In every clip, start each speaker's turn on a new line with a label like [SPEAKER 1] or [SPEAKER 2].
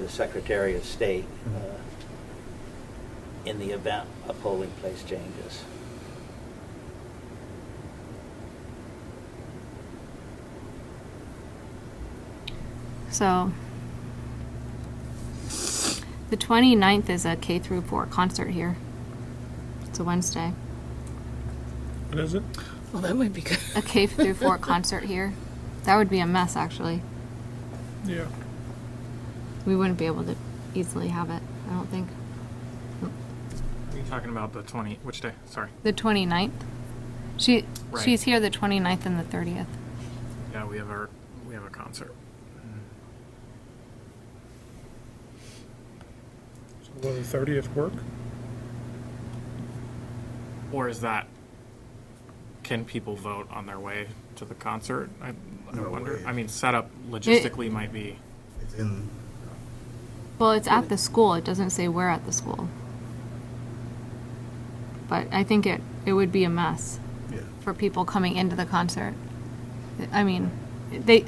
[SPEAKER 1] the Secretary of State uh, in the event a polling place changes.
[SPEAKER 2] So the 29th is a K through 4 concert here. It's a Wednesday.
[SPEAKER 3] What is it?
[SPEAKER 4] Well, that might be good.
[SPEAKER 2] A K through 4 concert here. That would be a mess, actually.
[SPEAKER 3] Yeah.
[SPEAKER 2] We wouldn't be able to easily have it, I don't think.
[SPEAKER 5] You're talking about the 20, which day? Sorry.
[SPEAKER 2] The 29th? She,
[SPEAKER 5] Right.
[SPEAKER 2] she's here the 29th and the 30th.
[SPEAKER 5] Yeah, we have our, we have a concert.
[SPEAKER 3] So will the thirtieth work?
[SPEAKER 5] Or is that, can people vote on their way to the concert? I, I
[SPEAKER 6] No
[SPEAKER 5] wonder.
[SPEAKER 6] way.
[SPEAKER 5] I mean, setup logistically might be,
[SPEAKER 6] It's in,
[SPEAKER 2] Well, it's at the school. It doesn't say where at the school. But I think it, it would be a mess.
[SPEAKER 6] yeah.
[SPEAKER 2] for people coming into the concert. I mean, they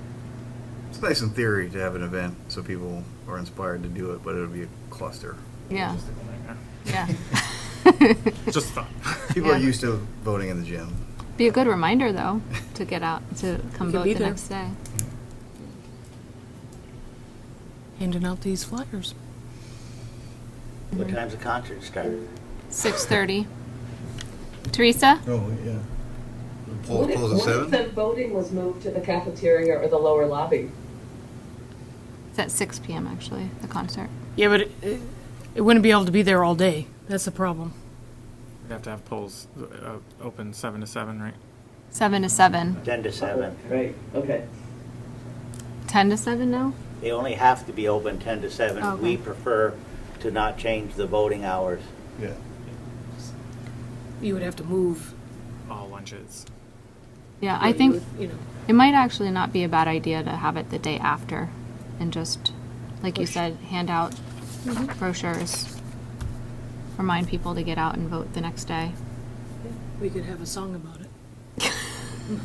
[SPEAKER 6] It's nice in theory to have an event so people are inspired to do it, but it'll be a cluster.
[SPEAKER 2] yeah yeah
[SPEAKER 5] just thought.
[SPEAKER 6] People are
[SPEAKER 2] Yeah.
[SPEAKER 6] used to voting in the gym.
[SPEAKER 2] be a good reminder though to get out to come
[SPEAKER 4] You could
[SPEAKER 2] vote
[SPEAKER 4] be
[SPEAKER 2] the
[SPEAKER 4] there.
[SPEAKER 2] next day.
[SPEAKER 4] Handing out these flyers.
[SPEAKER 1] What time's the concert start?
[SPEAKER 2] Six thirty. Teresa,
[SPEAKER 6] Oh, yeah. Poll
[SPEAKER 7] What if-
[SPEAKER 6] polls at
[SPEAKER 7] What
[SPEAKER 6] seven?
[SPEAKER 7] if the voting was moved to the cafeteria or the lower lobby?
[SPEAKER 2] it's at six p.m. Actually, the concert.
[SPEAKER 4] Yeah, but it- it, it wouldn't be able to be there all day. That's the problem.
[SPEAKER 5] We'd have to have polls uh, open 7 to 7, right?
[SPEAKER 2] Seven to seven.
[SPEAKER 1] 10 to 7.
[SPEAKER 7] Right, okay.
[SPEAKER 2] Ten to seven now.
[SPEAKER 1] They only have to be open 10 to 7.
[SPEAKER 2] Okay.
[SPEAKER 1] We prefer to not change the voting hours.
[SPEAKER 6] Yeah.
[SPEAKER 4] You would have to move.
[SPEAKER 5] All lunches.
[SPEAKER 2] Yeah, Uh, I
[SPEAKER 4] You
[SPEAKER 2] think
[SPEAKER 4] would, You know,
[SPEAKER 2] it might actually not be a bad idea to have it the day after, and just like you said, hand out
[SPEAKER 4] Mm-hmm.
[SPEAKER 2] brochures. Remind people to get out and vote the next day.
[SPEAKER 4] we could have a song about it.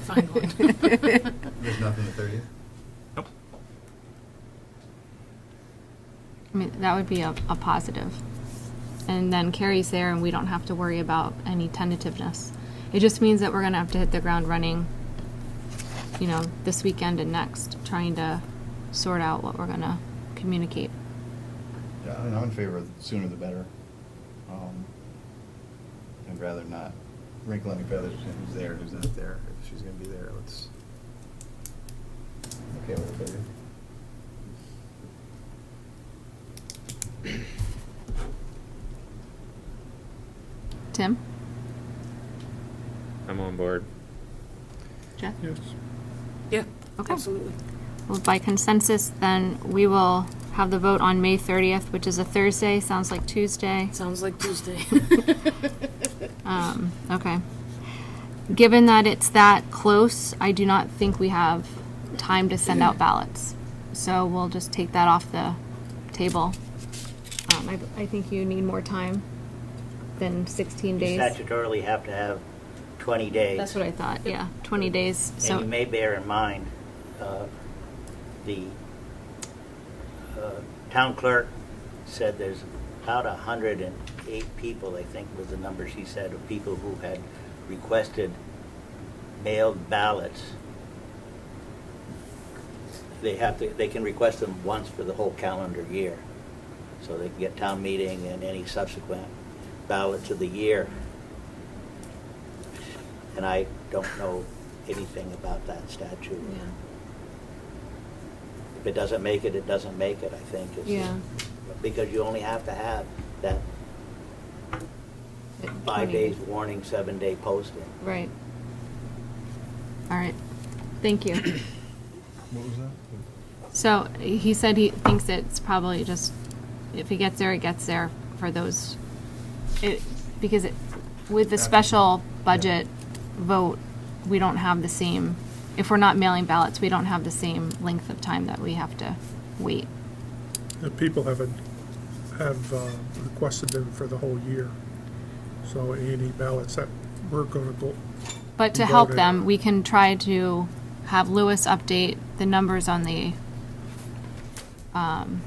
[SPEAKER 4] Find one.
[SPEAKER 6] There's nothing the thirtieth?
[SPEAKER 5] Nope.
[SPEAKER 2] I mean, that would be a, a positive. And then Carrie's there, and we don't have to worry about any tentativeness. It just means that we're going to have to hit the ground running, you know, this weekend and next, trying to sort out what we're going to communicate.
[SPEAKER 6] Yeah, I mean, I'm in favor of the sooner the better. Um, I'd rather not wrinkle any feathers in who's there, who's not there. If she's gonna be there, let's. Okay, with the thirtieth.
[SPEAKER 2] Tim?
[SPEAKER 8] I'm on board.
[SPEAKER 2] Jeff?
[SPEAKER 3] Yes.
[SPEAKER 4] Yeah,
[SPEAKER 2] Okay.
[SPEAKER 4] absolutely.
[SPEAKER 2] Well, by consensus, then we will have the vote on May 30th, which is a Thursday, sounds like Tuesday.
[SPEAKER 4] Sounds like Tuesday.
[SPEAKER 2] Um, okay. Given that it's that close, I do not think we have time to send out ballots. So we'll just take that off the table. Um, I, I think you need more time than sixteen
[SPEAKER 1] You
[SPEAKER 2] days.
[SPEAKER 1] statutorily have to have 20 days.
[SPEAKER 2] That's what I thought, yeah, twenty days,
[SPEAKER 1] And you
[SPEAKER 2] so,
[SPEAKER 1] may bear in mind, uh, the uh, town clerk said there's about 108 people, I think was the number she said, of people who had requested mailed ballots. They have to, they can request them once for the whole calendar year. So they can get town meeting and any subsequent ballots of the year. And I don't know anything about that statute.
[SPEAKER 4] Yeah.
[SPEAKER 1] If it doesn't make it, it doesn't make it, I think. is the-
[SPEAKER 2] Yeah.
[SPEAKER 1] Because you only have to have that five
[SPEAKER 2] 20
[SPEAKER 1] days warning, seven day posting.
[SPEAKER 2] right. All right, thank you.
[SPEAKER 6] What was that?
[SPEAKER 2] So he said he thinks it's probably just, if he gets there, it gets there for those, it, because it, with the special budget vote, we don't have the same, if we're not mailing ballots, we don't have the same length of time that we have to wait.
[SPEAKER 3] The people haven't, have uh, requested them for the whole year. So any ballots that we're gonna go,
[SPEAKER 2] But to
[SPEAKER 3] Voted.
[SPEAKER 2] help them, we can try to have Lewis update the numbers on the, um,